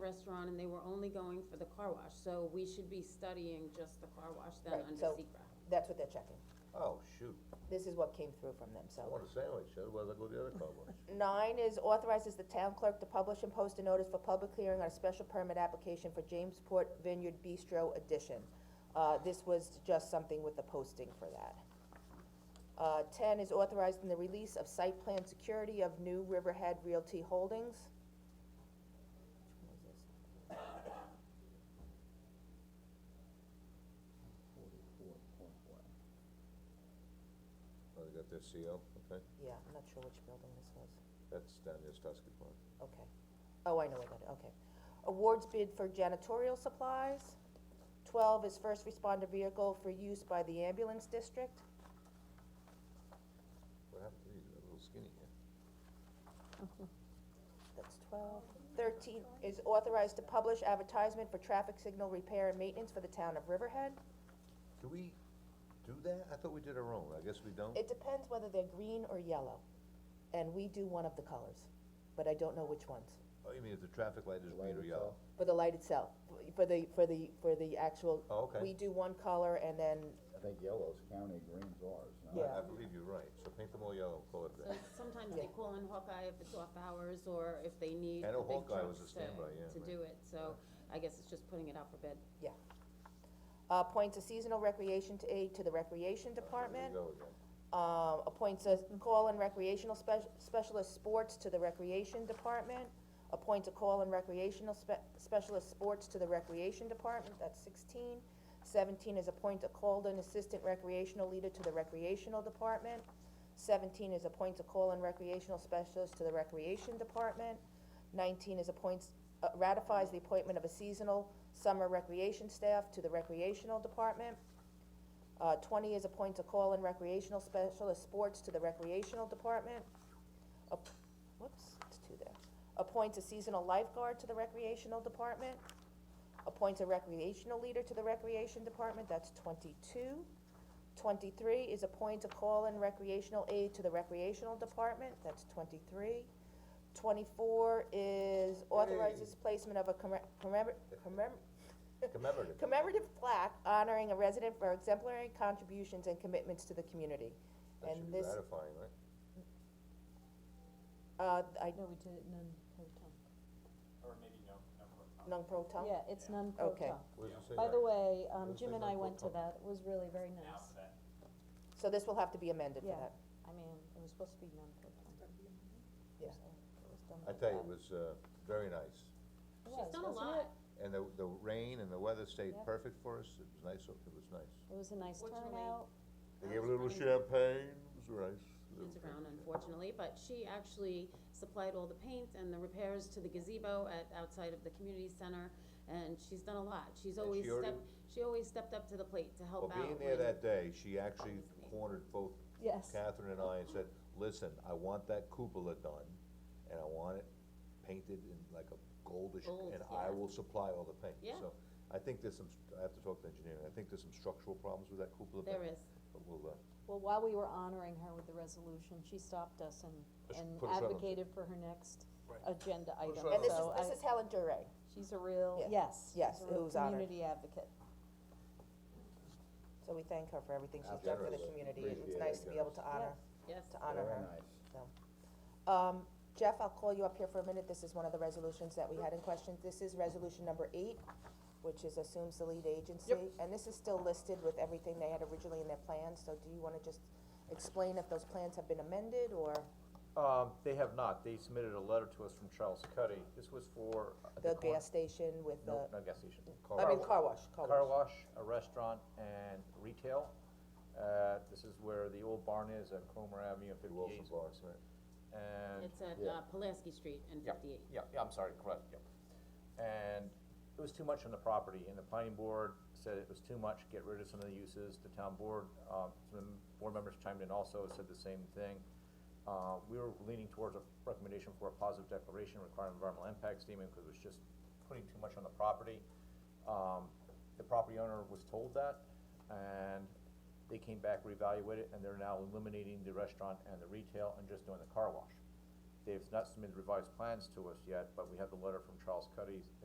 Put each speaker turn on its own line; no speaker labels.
restaurant and they were only going for the car wash, so we should be studying just the car wash then
Right,
under
so-
secra.
That's what they're checking.
Oh, shoot,
This is what came through from them, so.
I want a sandwich, otherwise I'll go to the other car wash.
Nine is authorizes the town clerk to publish and post a notice for public hearing on a special permit application for Jamesport Vineyard Bistro addition. Uh, this was just something with the posting for that. Uh, ten is authorizing the release of site plan security of New Riverhead Realty Holdings. Which one was this?
Oh, they got their CO, okay,
Yeah, I'm not sure which building this was.
that's down near Tusky Park.
Okay. Oh, I know what that, okay. Awards bid for janitorial supplies. Twelve is first responder vehicle for use by the ambulance district.
What happened to these, they're a little skinny here.
That's twelve. Thirteen is authorized to publish advertisement for traffic signal repair and maintenance for the town of Riverhead.
Do we do that? I thought we did our own, I guess we don't.
It depends whether they're green or yellow, and we do one of the colors, but I don't know which ones.
Oh, you mean if the traffic light is green or yellow?
For the light itself, for the, for the, for the actual.
Oh, okay.
We do one color and then,
I think yellow's county, green's ours, no?
Yeah.
I believe you're right, so paint them all yellow, and call it
So
that.
sometimes they
Yeah.
call in Hawkeye if it's off hours or if they need
I
the
know
big
Hawkeye was
trucks
a standby, yeah,
to, to
right.
do it, so I guess it's just putting it out for bid.
yeah. Uh, appoints a seasonal recreation to aid to the recreation
There
department.
you go again.
uh, appoints a call-in recreational spec- specialist sports to the recreation department, appoints a call-in recreational spe- specialist sports to the recreation department, that's sixteen. Seventeen is appoint a called-in assistant recreational leader to the recreational department. Seventeen is appoints a call-in recreational specialist to the recreation department. Nineteen is appoints, uh, ratifies the appointment of a seasonal summer recreation staff to the recreational department. Uh, twenty is appoint a call-in recreational specialist sports to the recreational department. Ap- Whoops, it's two there. Appoint a seasonal lifeguard to the recreational department. Appoint a recreational leader to the recreation department, that's twenty-two. Twenty-three is appoint a call-in recreational aide to the recreational department, that's twenty-three. Twenty-four is authorizes placement of a commem- commemor- commem-
Commemorative,
commemorative plaque honoring a resident for exemplary contributions and commitments to the community.
that
and
should be
this-
ratifying, right?
Uh, I,
No, we did it non-proton.
Or maybe no, no, no.
non pro tem?
Yeah, it's
Okay.
non-proton.
What does it say
By the
there?
way, um,
Those
Jim
things
and
are
I went to
pro-ton.
that, it was really very nice.
Alphabet.
So this will have to be amended for
Yeah.
that.
I mean, it was supposed to be non-proton.
Yeah.
I tell you, it was, uh, very nice.
She's done a lot,
And the, the rain and the weather stayed
Yeah.
perfect for us, it was nice, it was nice.
It was a nice
Fortunately,
turnout.
They
That
gave a
was
little
funny.
champagne, it was nice.
it's around unfortunately, but she actually supplied all the paint and the repairs to the gazebo at, outside of the community center, and she's done a lot. She's
And
always
she already-
stepped, she always stepped up to the plate to help
Well,
out.
being there
when-
that day, she actually cornered both
Yes.
Catherine and I and said, listen, I want that cupola done, and I want it painted in like a goldish,
Gold,
and I
yeah.
will supply all the paint.
Yeah.
So, I think there's some, st- I have to talk to engineering, I think there's some structural problems with that cupola. but-
There is.
But we'll, uh,
Well, while we were honoring her with the resolution, she stopped us and,
Let's
and
put us on the-
advocated for her next agenda
us
item,
on
And this
so
is,
I-
this is Helen Duray.
she's a real,
Yeah.
yes, she's
Yes,
a
it
real
was honored.
community advocate.
So we thank her for everything
How
she's done for the
generous.
community. and It's
Appreciate
nice
it,
to be able to honor,
Yes,
to honor
Very
her,
nice.
so. Um, Jeff, I'll call you up here for a minute. This is one of the resolutions that we had in question. This is resolution number eight, which is assumes the lead agency. And this is still listed with everything they had originally in their plans, so do you wanna just explain if those plans have been amended or
Um, they have not, they submitted a letter to us from Charles Cuddy, this was for. uh,
the
corn-
gas station with the,
No, not gas station.
I mean, car wash, car wash.
Car wash, a restaurant, and retail, uh, this is where the old barn is at Cromer Avenue and
Big
fifty-eight.
Wilson Barnes, right?
And.
it's at,
Yeah.
uh, Pulaski Street and
Yeah,
fifty-eight.
Yeah, yeah, I'm sorry, correct, yep. And it was too much on the property, and the planning board said it was too much, get rid of some of the uses, the town board, uh, some board members chimed in also, said the same thing. Uh, we were leaning towards a recommendation for a positive declaration requiring environmental impact statement, because it was just putting too much on the property. Um, the property owner was told that, and they came back, reevaluated, and they're now eliminating the restaurant and the retail and just doing the car wash. They've not submitted revised plans to us yet, but we have the letter from Charles Cuddy